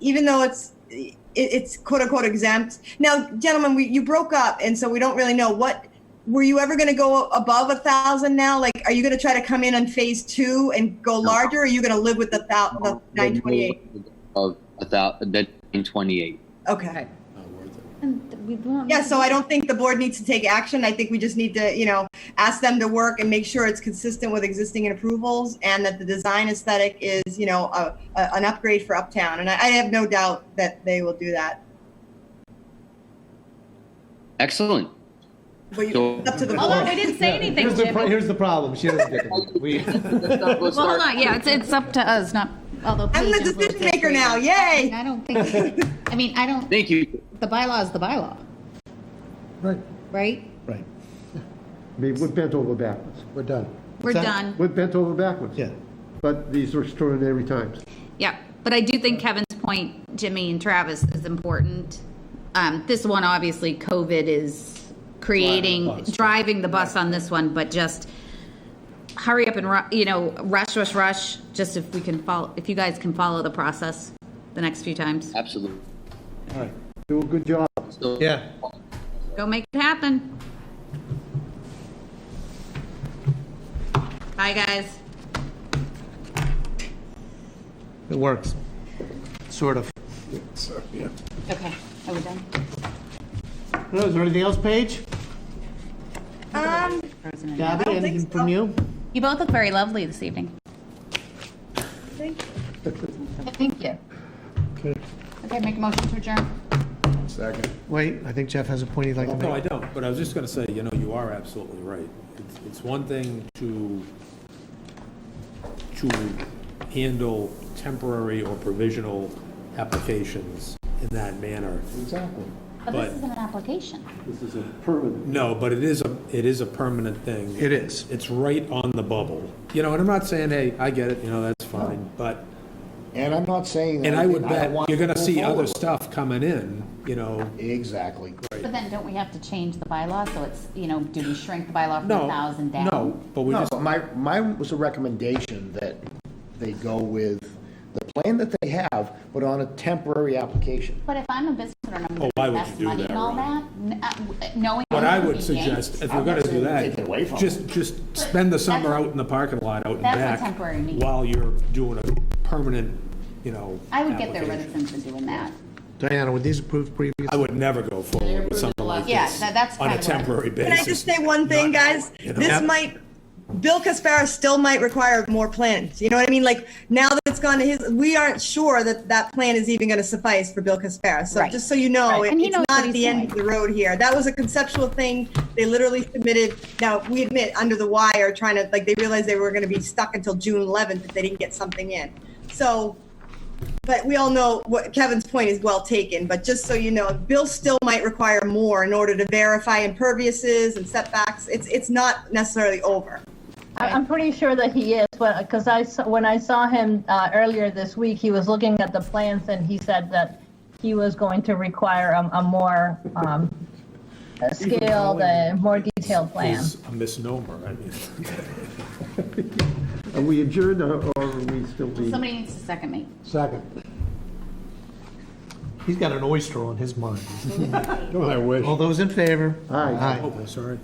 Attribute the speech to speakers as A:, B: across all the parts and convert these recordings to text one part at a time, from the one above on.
A: even though it's it, it's quote unquote exempt. Now, gentlemen, we, you broke up, and so we don't really know what were you ever going to go above a thousand. Now, like, are you going to try to come in on phase two and go larger? Or are you going to live with the, thou-
B: Oh,
A: the nine twenty eight?
C: Of a thousand, the nine twenty-eight.
A: Okay.
B: And th- we won't.
A: Yeah, so I don't think the board needs to take action. I think we just need to, you know, ask them to work and make sure it's consistent with existing approvals and that the design aesthetic is, you know, a, a, an upgrade for Uptown. And I, I have no doubt that they will do that.
C: Excellent.
A: But you,
C: So-
A: it's up to the
D: Although we
A: board.
D: didn't say anything,
E: Here's the,
D: Jim.
E: pro- here's the problem. She doesn't get it. We,
C: Well,
B: Well, hold on. Yeah, it's, it's up to us, not, although.
A: I'm the
B: Paige is
A: decision
B: little
A: maker now.
B: different.
A: Yay!
B: I don't think, I mean, I don't,
C: Thank you.
B: the bylaw is the bylaw,
E: right,
B: right?
F: Right.
E: I mean, we're bent over backwards. We're done.
B: We're
F: that-
B: done.
E: We're bent over backwards.
F: Yeah.
E: But these are extraordinary times.
B: Yeah, but I do think Kevin's point, Jimmy and Travis, is important. Um, this one, obviously, COVID is creating,
F: Driving the bus.
B: driving the bus on this one, but just hurry up and, ru- you know, rush, rush, rush, just if we can follow, if you guys can follow the process the next few times.
C: Absolutely.
F: All right.
E: Do a good job.
C: So-
F: Yeah.
B: Go make it happen. Bye, guys.
F: It works. Sort of.
B: Okay, are we done?
F: Is there anything else, Paige?
A: Um,
F: Gabby,
A: think
F: anything
A: so.
F: from you?
B: You both look very lovely this evening.
A: Thank
B: Thank you. Okay, make a motion to adjourn.
G: Second.
F: Wait, I think Jeff has a point he'd like to
G: No, I
F: make.
G: don't, but I was just going to say, you know, you are absolutely right. It's- It's one thing to, to handle temporary or provisional applications in that manner.
E: Exactly.
B: But
G: But-
B: this is an application.
E: This is a permanent.
G: No, but it is a, it is a permanent thing.
F: It is.
G: It's right on the bubble. You know, and I'm not saying, hey, I get it, you know, that's fine, but,
H: And I'm not saying. that
G: and I would
H: don't
G: bet
H: want
G: you're going to
H: move
G: see other
H: forward.
G: stuff coming in, you know,
H: Exactly.
B: But then don't we have to change the bylaw? So it's, you know, do we shrink the bylaw from a
G: no.
B: 1,000 down?
G: No, but we
H: No,
G: just,
H: but my, mine was a recommendation that they go with the plan that they have, but on a temporary application.
B: But if I'm a business owner and I'm
G: why
B: going
G: Oh, would
B: to invest
G: you do
B: money
G: that,
B: in all that, n- uh, w- knowing.
G: What I
B: I'm
G: would
B: gonna be
G: suggest, if
B: yanked,
G: you're gonna do that,
H: Take it away from
G: just, just spend the summer out in the parking lot, out and back.
B: That's what temporary means.
G: While you're doing a permanent, you know.
B: I would get their
G: application.
B: reticence in doing that.
F: Diana, were these approved previously?
G: I would never go forward with something like
B: Yeah,
G: this.
B: that- that's
G: On a
B: kinda what I-
G: temporary
A: Can
G: basis.
A: I just say one thing, guys?
G: you know.
A: This
G: Yep.
A: might, Bill Caspara still might require more plans. You know what I mean? Like, now that it's gone to his, we aren't sure that that plan is even going to suffice for Bill Caspara. So
B: Right.
A: just so you know,
B: Right.
A: it-
B: And he
A: Oh, it's
B: knows
A: not
B: what
A: at the
B: he's
A: end of
B: doing.
A: the road here. That was a conceptual thing. They literally submitted, now, we admit, under the wire, trying to, like, they realized they were going to be stuck until June 11th if they didn't get something in. So but we all know what Kevin's point is well taken, but just so you know, Bill still might require more in order to verify imperviouses and setbacks. It's, it's not necessarily over.
I: I- I'm pretty sure that he is, because I, saw- when I saw him uh, earlier this week, he was looking at the plans and he said that he was going to require a, a more um, a scaled, a more detailed plan.
G: Is a misnomer, I mean.
E: Are we adjourned or or are we still being?
B: Somebody needs to second me.
E: Second.
F: He's got an oyster on his mind.
E: Oh, I wish.
F: All those in favor?
E: Aye.
F: Aye.
G: Oh, sorry.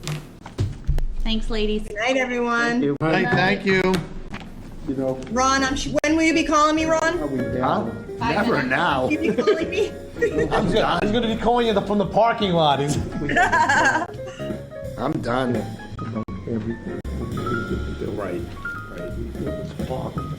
B: Thanks, ladies.
A: Good night, everyone.
E: You
F: Hey, Thank you.
E: you know,
A: Ron, I'm, sh- when will you be calling me,
E: are
A: Ron?
E: we down?
H: Never now.
A: You be calling me?
H: I'm done.
F: gonna be calling you from the parking lot.
H: I'm done.
E: Everything.
G: Right, right.
E: It was horrible.